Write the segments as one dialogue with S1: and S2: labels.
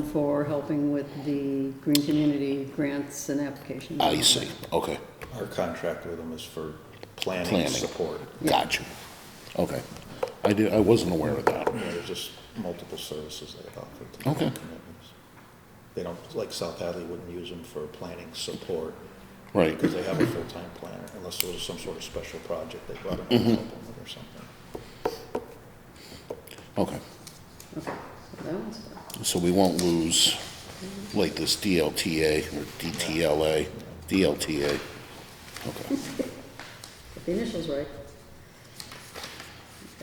S1: for helping with the green community grants and applications.
S2: I see, okay,
S3: Our contract with them is for planning
S2: Planning.
S3: support.
S2: gotcha, okay. I did, I wasn't aware of that.
S3: You know, There's just multiple services they offer. to
S2: Okay.
S3: communities. They don't, like South Hadley wouldn't use them for planning support
S2: Right,
S3: because they have a full-time planner unless there was some sort of special project they brought them in
S2: Mm-hmm.
S3: to help them with or something.
S2: okay.
S1: Okay, so that one's done.
S2: So we won't lose like this DLTA or DTLA, DLTA. Okay,
S1: Got the initials right.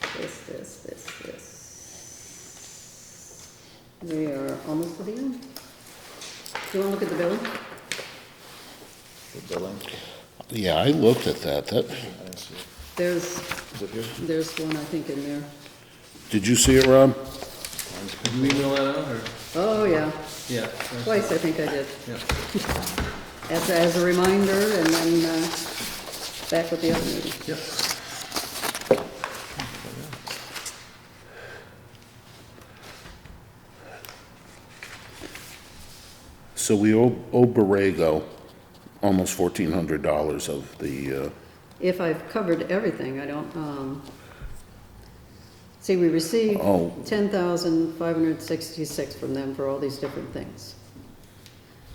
S1: Got This, this, this, this. We are almost to the end. Do you want to look at the billing?
S3: The billing,
S2: yeah, I looked at that, that,
S3: I didn't see it.
S1: There's,
S3: Is it here?
S1: there's one, I think, in there.
S2: did you see it, Rob?
S4: Did you email that out, or?
S1: Oh, yeah,
S4: Yeah.
S1: twice I think I did.
S4: Yeah.
S1: As, as a reminder, and then, uh, back with the other meeting.
S4: Yep.
S2: So we owe, owe Borrego almost fourteen hundred dollars of the, uh,
S1: If I've covered everything, I don't, um, see, we received
S2: Oh.
S1: ten thousand five hundred sixty-six from them for all these different things.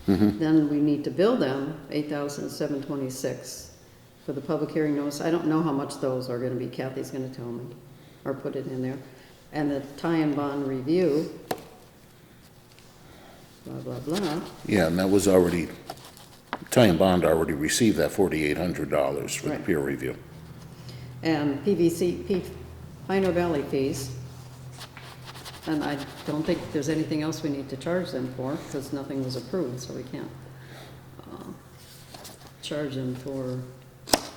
S1: Then we need to bill them eight thousand seven twenty-six for the public hearing notice. I don't know how much those are gonna be. Kathy's gonna tell me, or put it in there. And the tie-in bond review, blah, blah, blah.
S2: yeah, and that was already, Ty and Bond already received that forty-eight hundred dollars for the
S1: Right.
S2: peer review.
S1: and PVC, P- Pino Valley fees. And I don't think there's anything else we need to charge them for, because nothing was approved, so we can't um, charge them for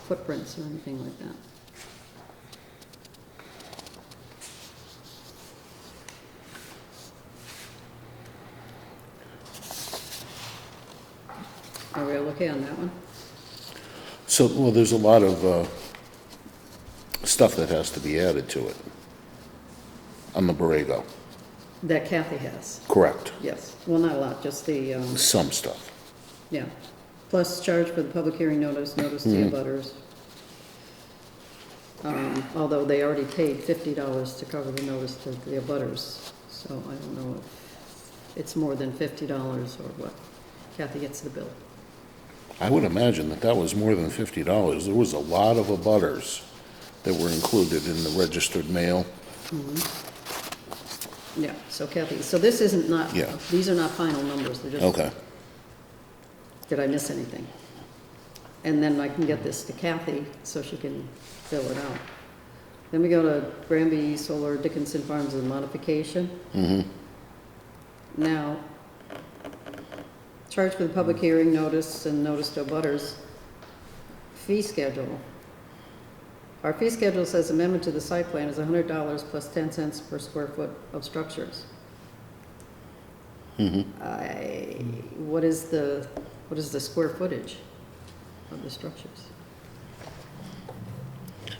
S1: footprints or anything like that. Are we all okay on that one?
S2: So, well, there's a lot of, uh, stuff that has to be added to it on the Borrego,
S1: That Kathy has.
S2: correct?
S1: Yes, well, not a lot, just the, um,
S2: Some stuff.
S1: yeah, plus charge for the public hearing notice, notice to
S2: Mm-hmm.
S1: the butters. Um, although they already paid fifty dollars to cover the notice to the butters, so I don't know if it's more than fifty dollars or what. Kathy gets the bill.
S2: I would imagine that that was more than fifty dollars. There was a lot of abutters that were included in the registered mail.
S1: Yeah, so Kathy, so this isn't not,
S2: Yeah.
S1: these are not final numbers, they're just.
S2: Okay,
S1: Did I miss anything? And then I can get this to Kathy so she can fill it out. Then we go to Granby Solar Dickinson Farms and modification. Now, charge for the public hearing notice and notice to butters. Fee schedule. Our fee schedule says amendment to the site plan is hundred dollars plus ten cents per square foot of structures. I, what is the, what is the square footage of the structures?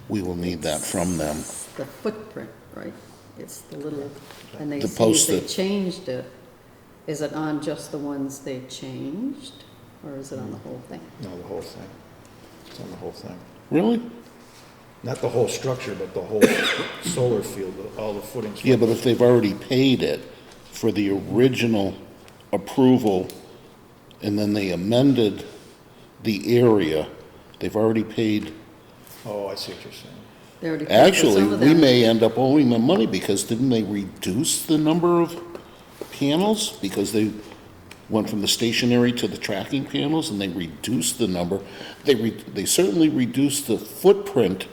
S2: we will need that from them.
S1: It's the footprint, right? It's the little, and they
S2: The
S1: say if they
S2: posted.
S1: changed it. Is it on just the ones they changed, or is it on the
S2: Hmm.
S1: whole thing?
S3: No, the whole thing. It's on the whole thing.
S2: Really?
S3: Not the whole structure, but the whole solar field, all the footings.
S2: Yeah, but if they've already paid it for the original approval, and then they amended the area, they've already paid.
S3: Oh, I see what you're saying.
S1: They already paid for
S2: Actually,
S1: some of
S2: we
S1: them.
S2: may end up owing them money, because didn't they reduce the number of panels? Because they went from the stationary to the tracking panels, and they reduced the number. They, re- they certainly reduced the footprint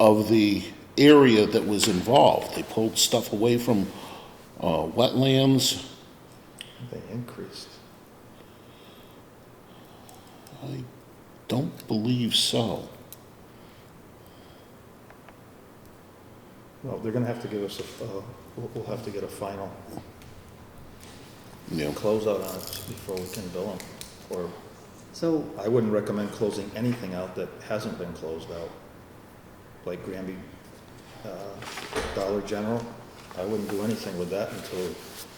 S2: of the area that was involved. They pulled stuff away from uh, wetlands.
S3: They increased.
S2: I don't believe so.
S3: Well, they're gonna have to give us a, uh, we'll, we'll have to get a final
S2: Yeah,
S3: closeout on it before we can bill them. Or,
S1: So,
S3: I wouldn't recommend closing anything out that hasn't been closed out. Like Granby, uh, Dollar General, I wouldn't do anything with that until